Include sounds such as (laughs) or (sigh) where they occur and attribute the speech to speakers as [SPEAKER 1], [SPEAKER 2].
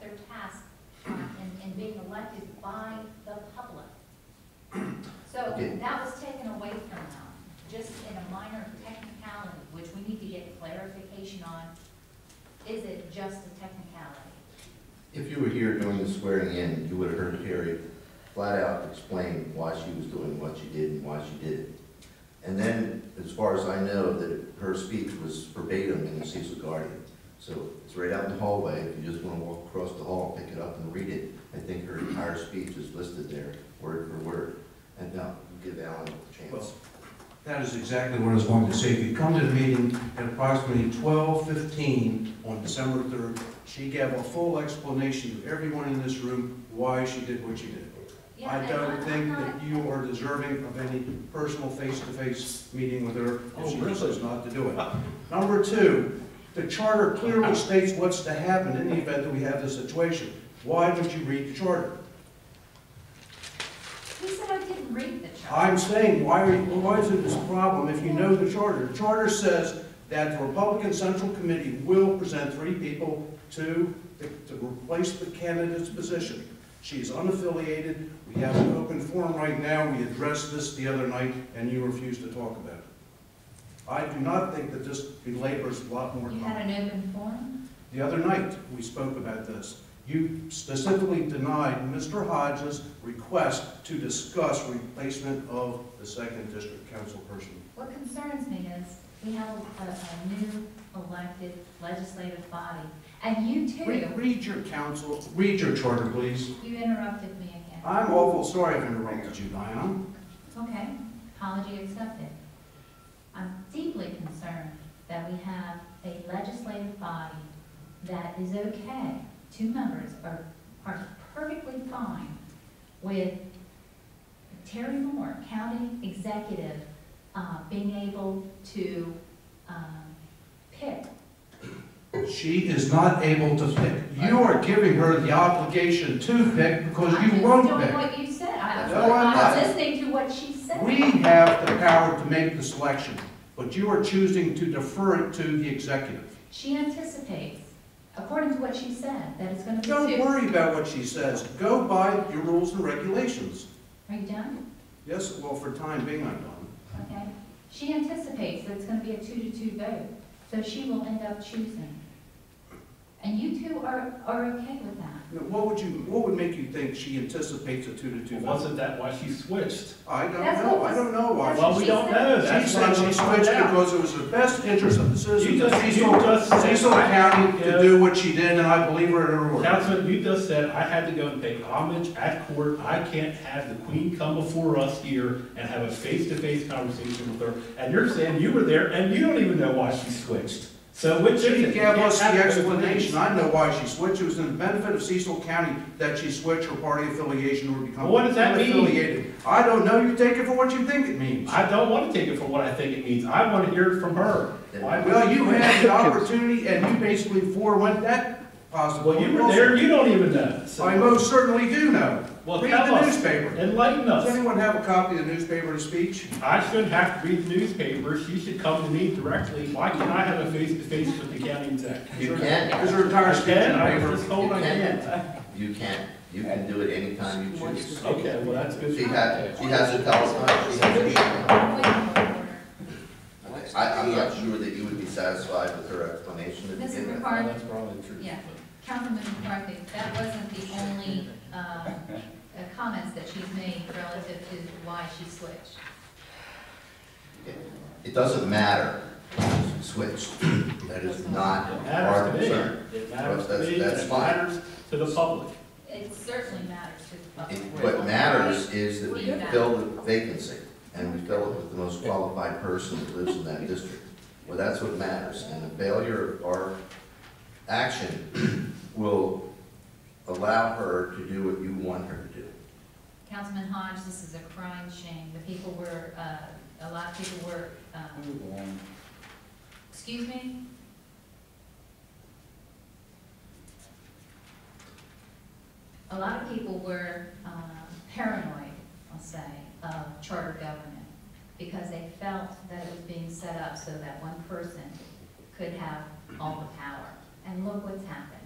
[SPEAKER 1] their task uh, in, in being elected by the public. So
[SPEAKER 2] Okay.
[SPEAKER 1] that was taken away from them, just in a minor technicality, which we need to get clarification on. Is it just a technicality?
[SPEAKER 2] If you were here during the swearing in, you would have heard Carrie flat out explain why she was doing what she did and why she did it. And then, as far as I know, that her speech was verbatim in the Cecil Guardian. So it's right out in the hallway, if you just want to walk across the hall, pick it up and read it. I think her entire speech is listed there, word for word. And now, give Alan a chance.
[SPEAKER 3] That is exactly what I was going to say. If you come to the meeting at approximately twelve fifteen on December third, she gave a full explanation to everyone in this room why she did what she did.
[SPEAKER 1] Yeah,
[SPEAKER 3] I
[SPEAKER 1] and
[SPEAKER 3] don't
[SPEAKER 1] I'm- I'm
[SPEAKER 3] think
[SPEAKER 1] not-
[SPEAKER 3] that you are deserving of any personal face-to-face meeting with her
[SPEAKER 4] Oh,
[SPEAKER 3] if she
[SPEAKER 4] really?
[SPEAKER 3] chooses not to do it. Number two, the charter
[SPEAKER 4] (laughs)
[SPEAKER 3] clearly states what's to happen in the event that we have this situation. Why would you read the charter?
[SPEAKER 1] He said I didn't read the chart.
[SPEAKER 3] I'm saying, why are, you- why is it this problem if you know the charter? The charter says that the Republican Central Committee will present three people to, to replace the candidate's position. She's unaffiliated, we have an open forum right now, we addressed this the other night, and you refused to talk about it. I do not think that this belabors a lot more
[SPEAKER 1] You
[SPEAKER 3] time.
[SPEAKER 1] had an open forum?
[SPEAKER 3] The other night, we spoke about this. You specifically denied Mr. Hodges' request to discuss replacement of the second district councilperson.
[SPEAKER 1] What concerns me is, we have a, a new elected legislative body, and you
[SPEAKER 3] Re-
[SPEAKER 1] too,
[SPEAKER 3] Read your council, read your charter, please.
[SPEAKER 1] you interrupted me again.
[SPEAKER 3] I'm awful sorry I've interrupted you, Diana.
[SPEAKER 1] Okay, apology accepted. I'm deeply concerned that we have a legislative body that is okay, two members are, are perfectly fine with Terry Moore, county executive, uh, being able to, um, pick
[SPEAKER 3] She is not able to pick. You are giving her the obligation to pick because you won't
[SPEAKER 1] I'm just doing
[SPEAKER 3] pick.
[SPEAKER 1] what you said, I was,
[SPEAKER 3] No, I'm
[SPEAKER 1] I
[SPEAKER 3] not.
[SPEAKER 1] was listening to what she said.
[SPEAKER 3] We have the power to make the selection, but you are choosing to defer it to the executive.
[SPEAKER 1] She anticipates, according to what she said, that it's gonna be
[SPEAKER 3] Don't
[SPEAKER 1] two.
[SPEAKER 3] worry about what she says. Go by your rules and regulations.
[SPEAKER 1] Are you done?
[SPEAKER 3] Yes, well, for time being, I'm done.
[SPEAKER 1] Okay. She anticipates that it's gonna be a two to two vote, so she will end up choosing. And you two are, are okay with that.
[SPEAKER 3] Now, What would you, what would make you think she anticipates a two to two vote?
[SPEAKER 4] Wasn't that why she switched?
[SPEAKER 3] I don't
[SPEAKER 1] That's
[SPEAKER 3] know,
[SPEAKER 1] what
[SPEAKER 3] I don't know
[SPEAKER 1] that's what
[SPEAKER 3] why.
[SPEAKER 4] Well, we don't know.
[SPEAKER 3] She
[SPEAKER 4] That's why
[SPEAKER 3] said she
[SPEAKER 4] we
[SPEAKER 3] switched
[SPEAKER 4] find out.
[SPEAKER 3] because it was the best interest of the
[SPEAKER 4] You
[SPEAKER 3] citizens of
[SPEAKER 4] just- you
[SPEAKER 3] Cecil,
[SPEAKER 4] just said-
[SPEAKER 3] Cecil County to
[SPEAKER 4] Yeah.
[SPEAKER 3] do what she did, and I believe her in her word.
[SPEAKER 4] Councilman, you just said, I had to go and pay homage at court. I can't have the queen come before us here and have a face-to-face conversation with her. And you're saying you were there and you don't even know why she switched. So which is it?
[SPEAKER 3] She
[SPEAKER 4] You
[SPEAKER 3] gave
[SPEAKER 4] can't
[SPEAKER 3] us the
[SPEAKER 4] have both
[SPEAKER 3] explanation.
[SPEAKER 4] things.
[SPEAKER 3] I know why she switched. It was in the benefit of Cecil County that she switched her party affiliation or become
[SPEAKER 4] What does that mean?
[SPEAKER 3] unaffiliated. I don't know. You take it for what you think it means.
[SPEAKER 4] I don't want to take it for what I think it means. I want to hear it from her. Why-
[SPEAKER 3] Well, you had the opportunity and you basically forewent that possible.
[SPEAKER 4] Well, you were there, you don't even know. So-
[SPEAKER 3] I most certainly do know.
[SPEAKER 4] Well,
[SPEAKER 3] Read
[SPEAKER 4] tell
[SPEAKER 3] the
[SPEAKER 4] us.
[SPEAKER 3] newspaper.
[SPEAKER 4] Enlighten
[SPEAKER 3] Does
[SPEAKER 4] us.
[SPEAKER 3] anyone have a copy of the newspaper to speech?
[SPEAKER 4] I shouldn't have to read the newspaper. She should come to me directly. Why can't I have a face-to-face with the county exec?
[SPEAKER 2] You can,
[SPEAKER 3] Is there entire speech in
[SPEAKER 4] Again,
[SPEAKER 3] the
[SPEAKER 4] I was
[SPEAKER 3] paper?
[SPEAKER 4] just told I
[SPEAKER 2] You can.
[SPEAKER 4] can't.
[SPEAKER 2] you can, you can do it anytime you choose.
[SPEAKER 4] Okay, well, that's good.
[SPEAKER 2] She has, she has a telephone, she has a...
[SPEAKER 1] Point of order.
[SPEAKER 2] I, I'm not sure that you would be satisfied with her explanation at the
[SPEAKER 1] Mrs.
[SPEAKER 2] beginning.
[SPEAKER 4] Well,
[SPEAKER 1] McCarthy,
[SPEAKER 4] That's probably true.
[SPEAKER 1] Yeah. Councilman McCarthy, that wasn't the only, um, uh, comments that she's made relative to why she switched.
[SPEAKER 2] It doesn't matter, switch, that is not
[SPEAKER 4] It
[SPEAKER 2] our
[SPEAKER 4] matters to me.
[SPEAKER 2] concern.
[SPEAKER 4] It matters to
[SPEAKER 2] That's-
[SPEAKER 4] me, and
[SPEAKER 2] that's
[SPEAKER 4] it
[SPEAKER 2] fine.
[SPEAKER 4] matters to the public.
[SPEAKER 1] It certainly matters to the public.
[SPEAKER 2] It- What matters is that we fill the vacancy, and we fill it with the most qualified person that lives in that district. Well, that's what matters, and the failure of our action will allow her to do what you want her to do.
[SPEAKER 1] Councilman Hodge, this is a crying shame. The people were, uh, a lot of people were, um, excuse me? A lot of people were um, paranoid, I'll say, of charter government because they felt that it was being set up so that one person could have all the power. And look what's happened.